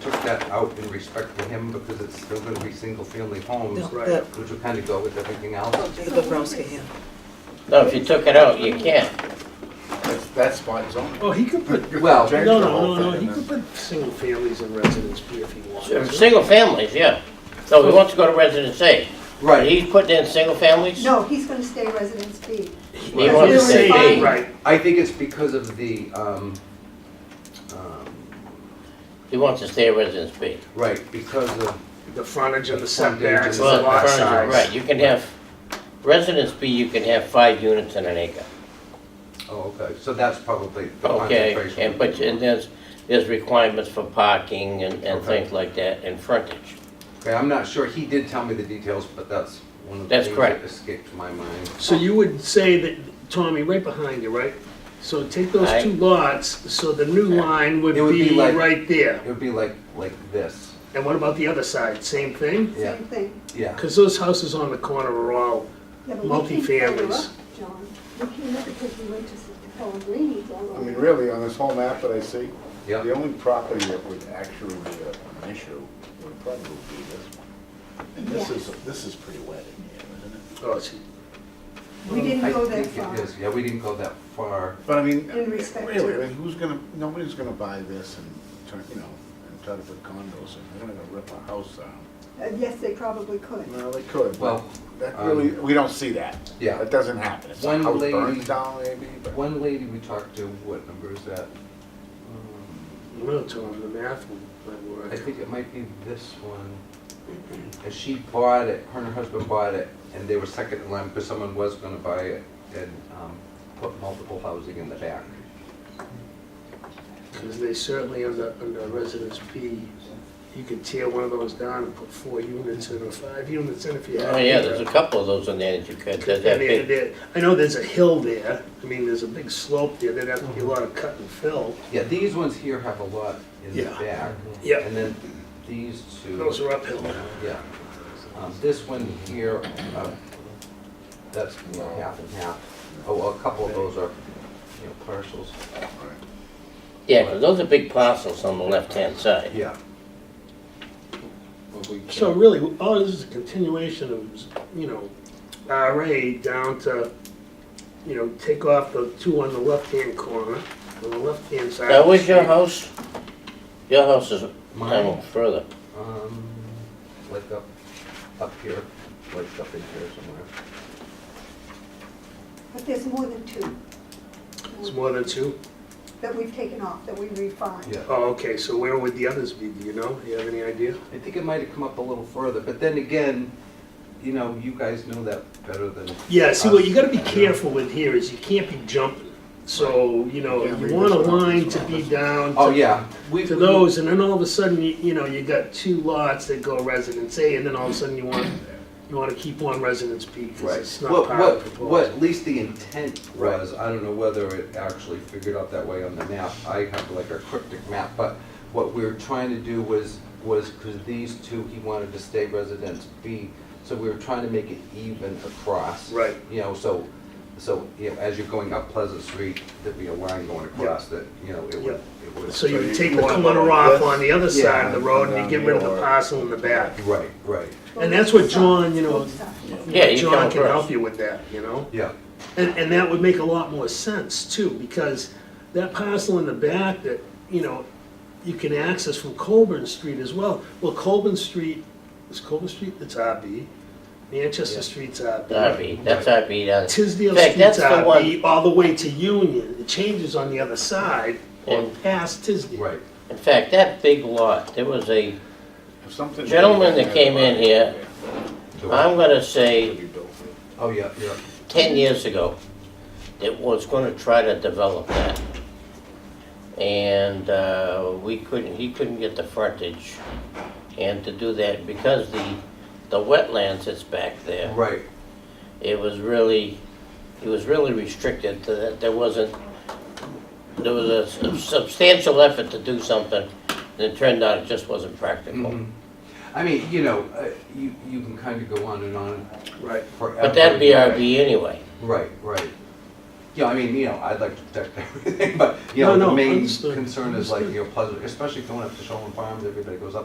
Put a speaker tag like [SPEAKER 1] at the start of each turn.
[SPEAKER 1] took that out in respect to him because it's still gonna be single-family homes,
[SPEAKER 2] No,
[SPEAKER 1] which
[SPEAKER 2] the-
[SPEAKER 1] will kind of go with everything else.
[SPEAKER 2] The Bobrowski, yeah.
[SPEAKER 3] No, if you took it out, you can't.
[SPEAKER 4] That's, that's fine zoning.
[SPEAKER 5] Well, he could put,
[SPEAKER 1] Well,
[SPEAKER 5] no,
[SPEAKER 4] Change the
[SPEAKER 5] no,
[SPEAKER 4] whole
[SPEAKER 5] no, no,
[SPEAKER 4] thing
[SPEAKER 5] he
[SPEAKER 4] and
[SPEAKER 5] could put single families and residence B if he
[SPEAKER 3] So,
[SPEAKER 5] wants.
[SPEAKER 3] Single families, yeah. So he wants to go to residence A. But
[SPEAKER 1] Right,
[SPEAKER 3] he's putting in single families?
[SPEAKER 6] No, he's gonna stay residence B.
[SPEAKER 3] He wants to stay
[SPEAKER 6] Right.
[SPEAKER 3] A.
[SPEAKER 5] Right,
[SPEAKER 1] I think it's because of the, um, um,
[SPEAKER 3] He wants to stay residence B.
[SPEAKER 1] right, because of,
[SPEAKER 5] the frontage and
[SPEAKER 1] Frontage
[SPEAKER 5] the
[SPEAKER 1] and
[SPEAKER 5] setbacks and
[SPEAKER 1] the
[SPEAKER 5] the
[SPEAKER 3] Well,
[SPEAKER 5] lot
[SPEAKER 3] furniture,
[SPEAKER 5] size.
[SPEAKER 3] Right, you can have, residence B, you can have five units in an acre.
[SPEAKER 1] oh, okay, so that's probably the
[SPEAKER 3] Okay,
[SPEAKER 1] concentration.
[SPEAKER 3] and, but, and there's, there's requirements for parking and, and
[SPEAKER 1] Okay.
[SPEAKER 3] things like that, and frontage.
[SPEAKER 1] Okay, I'm not sure, he did tell me the details, but that's one of the
[SPEAKER 3] That's
[SPEAKER 1] things
[SPEAKER 3] correct.
[SPEAKER 1] that escaped my mind.
[SPEAKER 5] So you would say that, Tommy, right behind you, right? So take those
[SPEAKER 3] Aye.
[SPEAKER 5] two lots, so the new
[SPEAKER 3] Yeah.
[SPEAKER 5] line would
[SPEAKER 1] It would be
[SPEAKER 5] be
[SPEAKER 1] like-
[SPEAKER 5] right there.
[SPEAKER 1] It would be like, like this,
[SPEAKER 5] And what about the other side, same thing?
[SPEAKER 1] Yeah.
[SPEAKER 6] Same thing.
[SPEAKER 1] yeah.
[SPEAKER 5] Because those houses on the corner are all,
[SPEAKER 6] Yeah, but we came further
[SPEAKER 5] Multifamilies.
[SPEAKER 6] up, John, we came up because we went to Pellegrini's all
[SPEAKER 4] I
[SPEAKER 6] over.
[SPEAKER 4] mean, really, on this whole map that I see,
[SPEAKER 1] Yeah.
[SPEAKER 4] the only property that would actually be a- an issue would probably be this one. And this
[SPEAKER 6] Yeah.
[SPEAKER 4] is, this is pretty wet in here, isn't it?
[SPEAKER 5] oh, it's-
[SPEAKER 6] We didn't
[SPEAKER 1] I
[SPEAKER 6] go that
[SPEAKER 1] think it
[SPEAKER 6] far.
[SPEAKER 1] is. Yeah, we didn't go that far.
[SPEAKER 4] But I mean,
[SPEAKER 6] In respect to-
[SPEAKER 4] really, I mean, who's gonna, nobody's gonna buy this and turn, you know, and try to put condos in. They're gonna rip a house down.
[SPEAKER 6] Uh, Yes, they probably could.
[SPEAKER 4] Well, they could, but
[SPEAKER 1] Well,
[SPEAKER 4] that
[SPEAKER 1] um,
[SPEAKER 4] really, we don't see that.
[SPEAKER 1] yeah.
[SPEAKER 4] That doesn't happen. It's a
[SPEAKER 1] One
[SPEAKER 4] house
[SPEAKER 1] lady-
[SPEAKER 4] burns down maybe, but.
[SPEAKER 1] One lady we talked to, what number is that?
[SPEAKER 5] I don't know, Tom, the math might
[SPEAKER 1] I
[SPEAKER 5] work.
[SPEAKER 1] think it might be this one. And she bought it, her and her husband bought it, and they were second in line because someone was gonna buy it and um, put multiple housing in the back.
[SPEAKER 5] Because they certainly, under, under residence B, you could tear one of those down and put four units in or five units in if you had.
[SPEAKER 3] Oh, yeah, there's a couple of those in there that you could, that, that
[SPEAKER 5] And there-
[SPEAKER 3] big.
[SPEAKER 5] there- I know there's a hill there, I mean, there's a big slope there, there'd have to be a lot of cut and fill.
[SPEAKER 1] Yeah, these ones here have a lot in the
[SPEAKER 5] Yeah.
[SPEAKER 1] back.
[SPEAKER 5] Yeah.
[SPEAKER 1] And then these two.
[SPEAKER 5] Those are uphill.
[SPEAKER 1] Yeah. Um, This one here, uh, that's you know, half and half. Oh, well, a couple of those are, you know, parcels.
[SPEAKER 3] Yeah, 'cause those are big parcels on the left-hand side.
[SPEAKER 1] Yeah.
[SPEAKER 4] Well, we can't-
[SPEAKER 5] So really, all this is a continuation of, you know, RA down to, you know, take off the two on the left-hand corner, on the left-hand side.
[SPEAKER 3] That was your house? Your house is,
[SPEAKER 1] Mine?
[SPEAKER 3] no, further.
[SPEAKER 1] Um, like up, up here, like up in here somewhere.
[SPEAKER 6] But there's more than two
[SPEAKER 5] It's more than two?
[SPEAKER 6] that we've taken off, that we refined.
[SPEAKER 1] Yeah,
[SPEAKER 5] Oh, okay, so where would the others be, do you know? Do you have any idea?
[SPEAKER 1] I think it might have come up a little further, but then again, you know, you guys know that better than,
[SPEAKER 5] Yeah, see, what you gotta be careful with here is you can't be jumping. So, you know,
[SPEAKER 4] Yeah,
[SPEAKER 5] you
[SPEAKER 4] read
[SPEAKER 5] want a
[SPEAKER 4] this one,
[SPEAKER 5] line
[SPEAKER 4] this
[SPEAKER 5] to
[SPEAKER 4] one,
[SPEAKER 5] be
[SPEAKER 4] this one.
[SPEAKER 5] down
[SPEAKER 1] oh,
[SPEAKER 5] to
[SPEAKER 1] yeah. we-
[SPEAKER 5] to those, and then all of a sudden, you, you know, you got two lots that go residence A, and then all of a sudden you want, you want to keep one residence B, because
[SPEAKER 1] Right.
[SPEAKER 5] it's not
[SPEAKER 1] What,
[SPEAKER 5] part of
[SPEAKER 1] what,
[SPEAKER 5] the
[SPEAKER 1] what,
[SPEAKER 5] proposal.
[SPEAKER 1] at least the intent was, I don't know whether it actually figured out that way on the map. I have like a cryptic map, but what we were trying to do was, was because these two, he wanted to stay residence B, so we were trying to make it even across.
[SPEAKER 5] Right.
[SPEAKER 1] You know, so, so, you know, as you're going up Pleasant Street, there'd be a line going across that, you know, it would, it would.
[SPEAKER 5] So you would
[SPEAKER 4] So you
[SPEAKER 5] take the
[SPEAKER 4] want
[SPEAKER 5] corner
[SPEAKER 4] one
[SPEAKER 5] off
[SPEAKER 4] this,
[SPEAKER 5] on the other
[SPEAKER 1] yeah,
[SPEAKER 5] side of the road, and
[SPEAKER 4] down
[SPEAKER 5] you get rid of
[SPEAKER 4] here,
[SPEAKER 5] the
[SPEAKER 4] or-
[SPEAKER 5] parcel in the back.
[SPEAKER 1] Right, right,
[SPEAKER 5] And that's what John, you know,
[SPEAKER 6] Both sides.
[SPEAKER 3] Yeah, you come
[SPEAKER 5] John can
[SPEAKER 3] across.
[SPEAKER 5] help you with that, you know?
[SPEAKER 1] yeah,
[SPEAKER 5] And, and that would make a lot more sense too, because that parcel in the back that, you know, you can access from Colburn Street as well. Well, Colburn Street, is Colburn Street, it's RB. Manchester Street's RB.
[SPEAKER 3] RB, that's RB down there.
[SPEAKER 5] Tisdale
[SPEAKER 3] uh, In fact,
[SPEAKER 5] Street's
[SPEAKER 3] that's the one,
[SPEAKER 5] RB, all the way to Union. It changes on the other side or
[SPEAKER 3] And-
[SPEAKER 5] past Tisdale.
[SPEAKER 1] right.
[SPEAKER 3] in fact, that big lot, there was a,
[SPEAKER 4] If something-
[SPEAKER 3] Gentleman that came in here, I'm gonna say,
[SPEAKER 1] Oh, yeah, yeah,
[SPEAKER 3] 10 years ago that was going to try to develop that. And uh, we couldn't, he couldn't get the frontage. And to do that, because the, the wetlands that's back there,
[SPEAKER 1] right,
[SPEAKER 3] it was really, it was really restricted to that, there wasn't, there was a sub- substantial effort to do something, and it turned out it just wasn't practical.
[SPEAKER 1] Mhm. I mean, you know, uh, you, you can kind of go on and on
[SPEAKER 5] Right.
[SPEAKER 1] forever.
[SPEAKER 3] But that'd be RB anyway.
[SPEAKER 1] Right, right. Yeah, I mean, you know, I'd like to protect everything, but, you know,
[SPEAKER 5] No,
[SPEAKER 1] the
[SPEAKER 5] no,
[SPEAKER 1] main
[SPEAKER 5] understood,
[SPEAKER 1] concern is like,
[SPEAKER 5] understood.
[SPEAKER 1] you know, Pleasant, especially going up to Shoreland Farms, everybody goes up